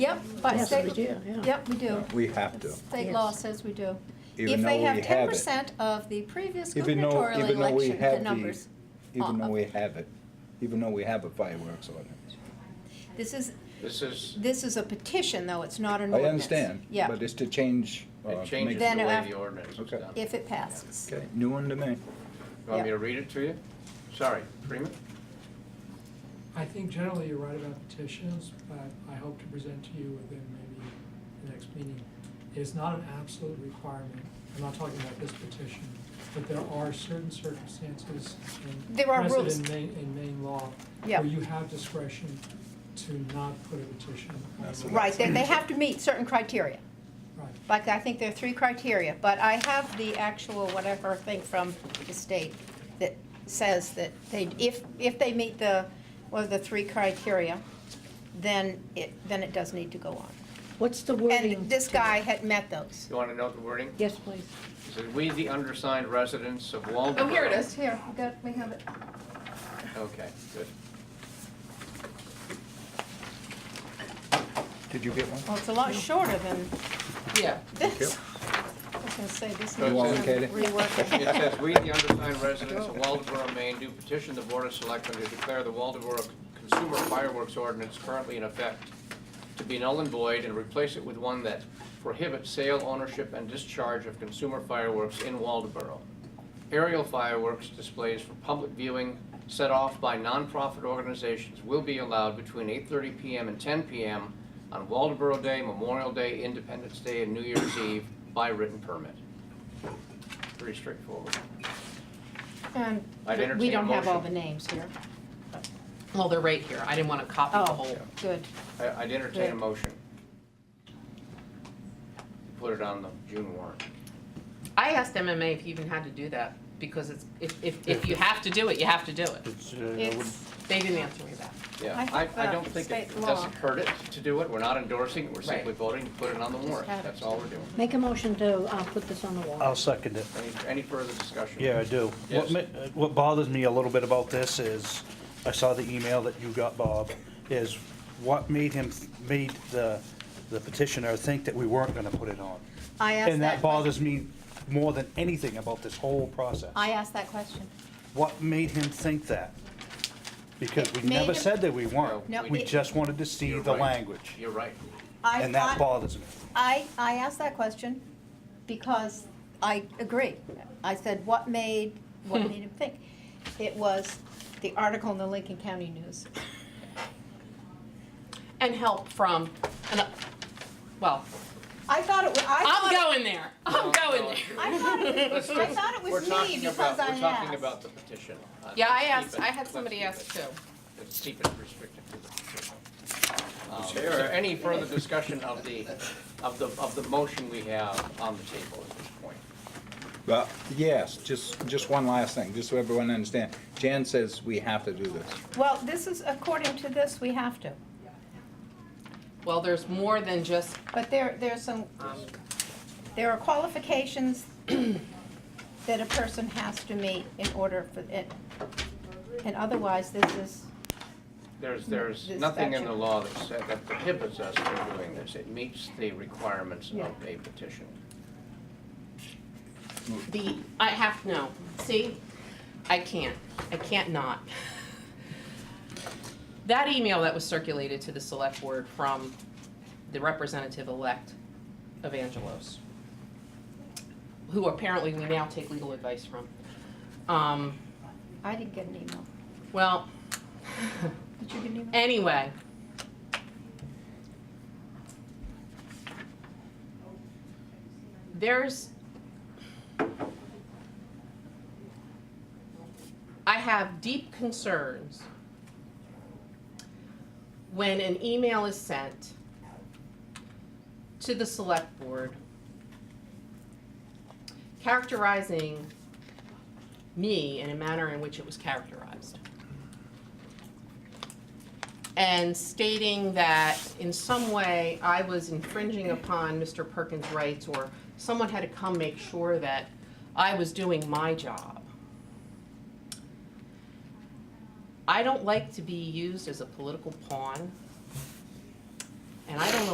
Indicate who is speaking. Speaker 1: Yep, by
Speaker 2: Yes,
Speaker 1: state.
Speaker 2: we do, yeah.
Speaker 1: Yep, we do.
Speaker 3: We have to.
Speaker 1: State
Speaker 2: Yes.
Speaker 1: law says we do.
Speaker 3: Even
Speaker 1: If
Speaker 3: though
Speaker 1: they
Speaker 3: we
Speaker 1: have
Speaker 3: have
Speaker 1: ten
Speaker 3: it.
Speaker 1: percent of the previous
Speaker 3: Even though,
Speaker 1: gubernatorial
Speaker 3: even though we
Speaker 1: election, the
Speaker 3: have the,
Speaker 1: numbers.
Speaker 3: even
Speaker 1: uh,
Speaker 3: though we have it, even though we have a fireworks ordinance.
Speaker 1: This is,
Speaker 4: This is,
Speaker 1: this is a petition, though, it's not an
Speaker 3: I
Speaker 1: ordinance.
Speaker 3: understand,
Speaker 1: Yeah,
Speaker 3: but it's to change. uh,
Speaker 4: it
Speaker 3: to
Speaker 4: changes
Speaker 3: make-
Speaker 1: Then
Speaker 4: the way
Speaker 1: af-
Speaker 4: the ordinance is
Speaker 3: Okay.
Speaker 4: done. You
Speaker 1: if it passes.
Speaker 3: Okay, new one to me.
Speaker 4: want me to read it to you? Sorry, Freeman?
Speaker 5: I think generally you're right about petitions, but I hope to present to you within maybe the next meeting. It's not an absolute requirement, I'm not talking about this petition, but there are certain circumstances and
Speaker 1: There are
Speaker 5: precedent
Speaker 1: rules.
Speaker 5: in Maine, in Maine law
Speaker 1: Yeah.
Speaker 5: where you have discretion to not put a petition. on
Speaker 3: That's
Speaker 5: the-
Speaker 1: Right, then they have to meet certain criteria.
Speaker 5: Right.
Speaker 1: Like, I think there are three criteria, but I have the actual whatever thing from the state that says that they, if, if they meet the, one of the three criteria, then it, then it does need to go on.
Speaker 2: What's the wording?
Speaker 1: And this guy had met those.
Speaker 4: You want to note the wording?
Speaker 2: Yes, please.
Speaker 4: It says, "We, the undersigned residents of Waldeboro."
Speaker 6: Oh, here it is.
Speaker 1: Here, we got, we have it.
Speaker 4: Okay, good.
Speaker 3: Did you get one?
Speaker 1: Well, it's a lot shorter than
Speaker 4: Yeah.
Speaker 1: this. I was gonna say, this
Speaker 4: You want
Speaker 1: needs
Speaker 3: it, Katie?
Speaker 1: some reworking.
Speaker 4: It says, "We, the undersigned residents of Waldeboro, Maine, do petition the Board of Selectmen to declare the Waldeboro Consumer Fireworks Ordinance currently in effect to be null and void and replace it with one that prohibits sale, ownership, and discharge of consumer fireworks in Waldeboro. Aerial fireworks displays for public viewing set off by nonprofit organizations will be allowed between 8:30 PM and 10 PM on Waldeboro Day, Memorial Day, Independence Day, and New Year's Eve by written permit." Pretty straightforward.
Speaker 1: And
Speaker 4: I'd entertain
Speaker 1: We don't
Speaker 4: a
Speaker 1: have all the
Speaker 4: motion.
Speaker 1: names here.
Speaker 6: Well, they're right here. I didn't want to copy the
Speaker 1: Oh,
Speaker 6: whole.
Speaker 1: good.
Speaker 4: I- I'd entertain a
Speaker 1: Good.
Speaker 4: motion. Put it on the June warrant.
Speaker 6: I asked MMA if you even had to do that because it's, if, if, if you have to do it, you have to do it.
Speaker 1: It's,
Speaker 6: They didn't answer me back.
Speaker 4: Yeah,
Speaker 1: I
Speaker 4: I,
Speaker 1: think
Speaker 4: I
Speaker 1: that
Speaker 4: don't think it
Speaker 1: state
Speaker 4: it
Speaker 1: law-
Speaker 4: doesn't hurt it to do it. We're not endorsing it. We're simply
Speaker 6: Right.
Speaker 4: voting to put it on the warrant.
Speaker 1: had it.
Speaker 4: That's all we're doing.
Speaker 2: Make a motion to, uh put this on the wall.
Speaker 7: I'll second it.
Speaker 4: Any, any further discussion?
Speaker 7: Yeah, I do.
Speaker 4: Yes.
Speaker 7: What ma- uh, What bothers me a little bit about this is, I saw the email that you got, Bob, is what made him, made the the petitioner think that we weren't gonna put it on.
Speaker 1: I asked
Speaker 7: And
Speaker 1: that question.
Speaker 7: that bothers me more than anything about this whole process.
Speaker 1: I asked that question.
Speaker 7: What made him think that? Because we
Speaker 1: It made
Speaker 7: never
Speaker 1: him-
Speaker 7: said that we weren't.
Speaker 1: No,
Speaker 7: We
Speaker 1: it-
Speaker 7: just wanted to see
Speaker 4: You're
Speaker 7: the
Speaker 4: right.
Speaker 7: language,
Speaker 4: You're right.
Speaker 1: I
Speaker 7: and
Speaker 1: thought-
Speaker 7: that bothers me.
Speaker 1: I, I asked that question because I agree. I said, what made, what made him think? It was the article in the Lincoln County News.
Speaker 6: And help from, and, uh, well,
Speaker 1: I thought it was, I thought.
Speaker 6: I'm going there. I'm
Speaker 4: No,
Speaker 6: going
Speaker 4: no,
Speaker 6: there.
Speaker 4: it's-
Speaker 1: I thought it was,
Speaker 4: Let's
Speaker 1: I
Speaker 4: just-
Speaker 1: thought it
Speaker 4: we're
Speaker 1: was me
Speaker 4: talking
Speaker 1: because
Speaker 4: about-
Speaker 1: I asked.
Speaker 4: We're talking about the petition. Uh,
Speaker 6: Yeah, I
Speaker 4: let's keep
Speaker 6: asked,
Speaker 4: it-
Speaker 6: I had
Speaker 4: let's
Speaker 6: somebody
Speaker 4: keep
Speaker 6: ask
Speaker 4: it-
Speaker 6: too.
Speaker 4: Let's keep it restricted to the petition. Um, Is there any further discussion of the, of the, of the motion we have on the table at this point?
Speaker 3: Well, yes, just, just one last thing, just so everyone understands. Jan says we have to do this.
Speaker 1: Well, this is, according to this, we have to.
Speaker 6: Well, there's more than just,
Speaker 1: But there, there's some,
Speaker 6: um,
Speaker 1: there are qualifications that a person has to meet in order for it. And otherwise, this is,
Speaker 4: There's, there's
Speaker 1: This
Speaker 4: nothing in
Speaker 1: statute.
Speaker 4: the law that said, that prohibits us from doing this. It meets the requirements
Speaker 1: Yeah.
Speaker 4: of a petition.
Speaker 6: the, I have, no, see, I can't, I can't not. That email that was circulated to the select board from the representative-elect of Angelos, who apparently we now take legal advice from. Um,
Speaker 1: I didn't get an email.
Speaker 6: well,
Speaker 1: Did you get an email?
Speaker 6: anyway. There's. I have deep concerns when an email is sent to the select board characterizing me in a manner in which it was characterized and stating that in some way I was infringing upon Mr. Perkins' rights or someone had to come make sure that I was doing my job. I don't like to be used as a political pawn, and I don't know